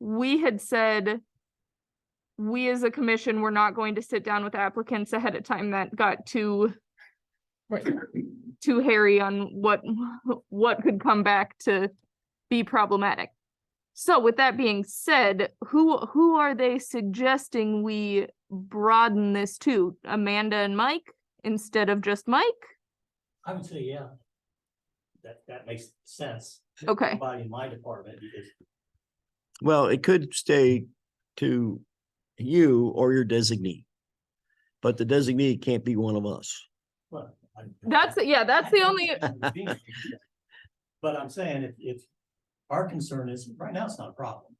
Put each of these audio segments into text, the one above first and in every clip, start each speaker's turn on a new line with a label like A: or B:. A: we had said we as a commission were not going to sit down with applicants ahead of time. That got too
B: Right.
A: too hairy on what what could come back to be problematic. So with that being said, who who are they suggesting we broaden this to? Amanda and Mike instead of just Mike?
C: I would say, yeah. That, that makes sense.
A: Okay,
C: Body in my department, because
D: Well, it could stay to you or your designee. But the designee can't be one of us.
C: well. I-
A: that's yeah, that's the only
C: But I'm saying if, if our concern is, right now it's not a problem.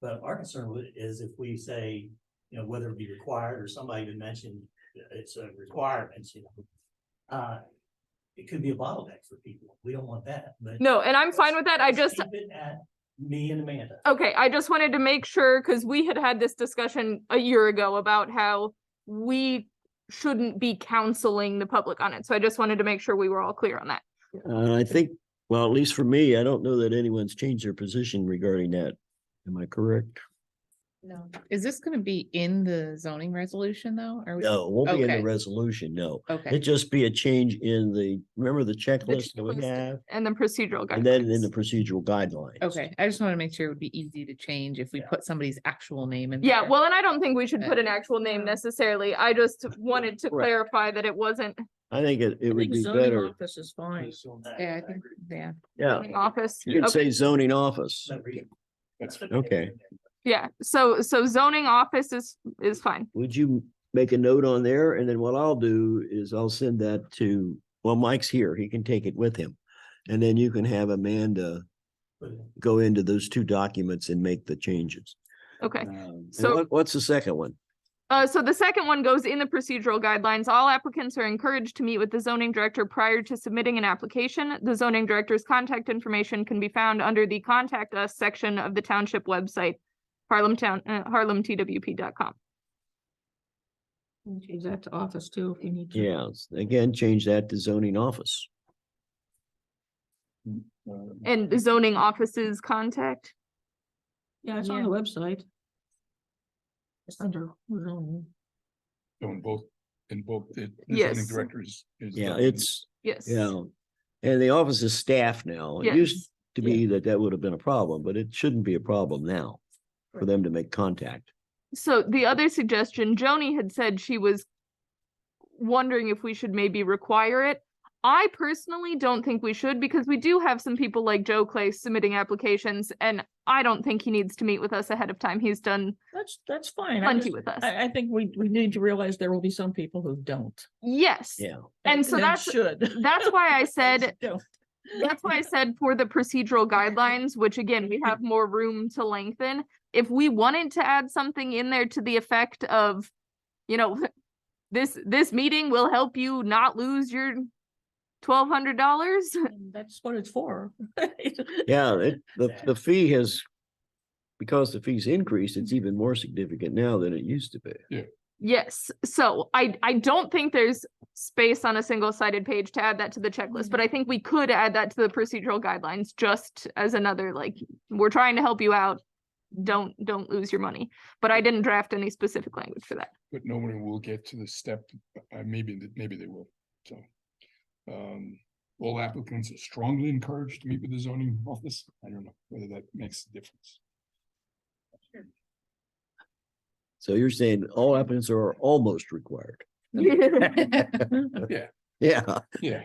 C: But our concern with- is if we say, you know, whether it be required or somebody even mentioned uh, it's a requirement, you know. Uh, it could be a bottleneck for people. We don't want that, but.
A: no, and I'm fine with that. I just
C: Keep it at me and Amanda.
A: Okay, I just wanted to make sure, because we had had this discussion a year ago about how we shouldn't be counseling the public on it, so I just wanted to make sure we were all clear on that.
D: And I think, well, at least for me, I don't know that anyone's changed their position regarding that. Am I correct?
B: No. Is this gonna be in the zoning resolution though? Are we?
D: No, it won't be in the
B: Okay.
D: resolution, no.
B: Okay,
D: It'd just be a change in the, remember the checklist that we
A: checklist.
D: have?
A: And then procedural
D: And then in the
A: guidelines.
D: procedural guidelines.
B: okay. I just wanna make sure it would be easy to change if we
C: Yeah.
B: put somebody's actual name in.
A: Yeah,
B: there.
A: well, and I don't think we should
B: Uh,
A: put an actual name necessarily, I just wanted to
D: Correct.
A: clarify that it wasn't
D: I think it, it would be better.
E: Office is fine.
B: Yeah, I think, yeah.
D: Yeah,
A: an office.
D: Oh. you could
A: Okay,
D: say zoning office.
C: No reason.
D: Okay.
A: Yeah, so, so zoning office is, is fine,
D: Would you make a note on there? And then what I'll do is I'll send that to, well, Mike's here. He can take it with him. And then you can have Amanda
C: But
D: go into those two documents and make the changes.
A: okay.
D: Um, and
A: So-
D: what- What's the second one?
A: Uh, so the second one goes in the procedural guidelines. All applicants are encouraged to meet with the zoning director prior to submitting an application. The zoning director's contact information can be found under the contact us section of the township website, Harlem Town, uh, harlemtwp.com.
E: Change that to office too, if you need to.
D: Yeah, s- again, change that to zoning office.
F: Uh,
A: And the zoning offices contact.
E: Yeah, it's on the website. It's under zoning.
F: So in both, in both, the the
A: Yes.
F: zoning directors. is
D: Yeah,
F: done in-
D: it's,
A: Yes.
D: yeah. And the office is staff now. It used
A: Yes.
D: to be that that would have been a problem, but it shouldn't be a problem now for them to make contact.
A: So the other suggestion, Joni had said she was wondering if we should maybe require it. I personally don't think we should because we do have some people like Joe Clay submitting applications and I don't think he needs to meet with us ahead of time. He's done
E: That's, that's fine. I
A: plenty
E: just-
A: with us.
E: I, I think we, we need to realize there will be some people who don't.
A: Yes,
D: Yeah.
A: And so
E: they
A: that's-
E: Should.
A: that's why I said,
E: Just don't.
A: that's why I said for the procedural guidelines, which again, we have more room to lengthen. If we wanted to add something in there to the effect of, you know, this, this meeting will help you not lose your twelve hundred dollars.
E: And That's what it's for.
D: Yeah, it, the,
C: Exactly.
D: the fee has, because the fees increased,
E: Mm-hmm.
D: it's even more significant now than it used to be.
A: Yes, so I, I don't think there's space on a single-sided page to add that to the checklist, but I think we could add that to the procedural guidelines just as another, like, we're trying to help you out. Don't, don't lose your money, but I didn't draft any specific language for that.
F: But no one will get to the step, uh, maybe, th- maybe they will, so. Um, all applicants are strongly encouraged to meet with the zoning office. I don't know whether that makes a difference.
D: So you're saying all applicants are almost required. Yeah, all
F: Yeah,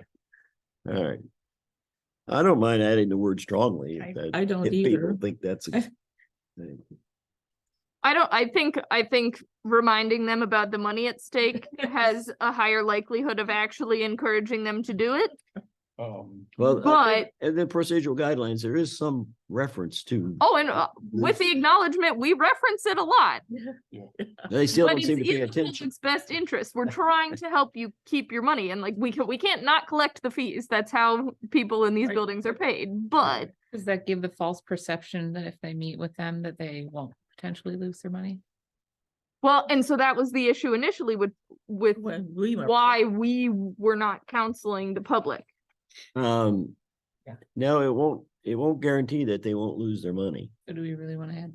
D: right. I don't mind adding the word strongly. if
E: I-
D: that-
E: I don't
D: if people
E: either.
D: Think that's. a thing.
A: I don't, I think, I think reminding them about the money at stake has a higher likelihood of actually encouraging them to do it.
F: um,
D: Well, I think- and the procedural guidelines, there is some reference to,
A: Oh, and uh, with the acknowledgement, we reference it a lot.
D: they still
A: But
D: don't
A: it's
D: seem to pay
A: in the
D: attention.
A: public's Best interest. We're trying to help you keep your money and like we can, we can't not collect the fees. That's how people in these
E: Right.
A: buildings are paid, but
B: Does that give the false perception that if they meet with them, that they won't potentially lose their money?
A: well, and so that was the issue initially with, with
E: When we were-
A: why we were not counseling the public.
D: Um,
E: Yeah.
D: no, it won't, it won't guarantee that they won't lose their money.
B: Or do we really want to add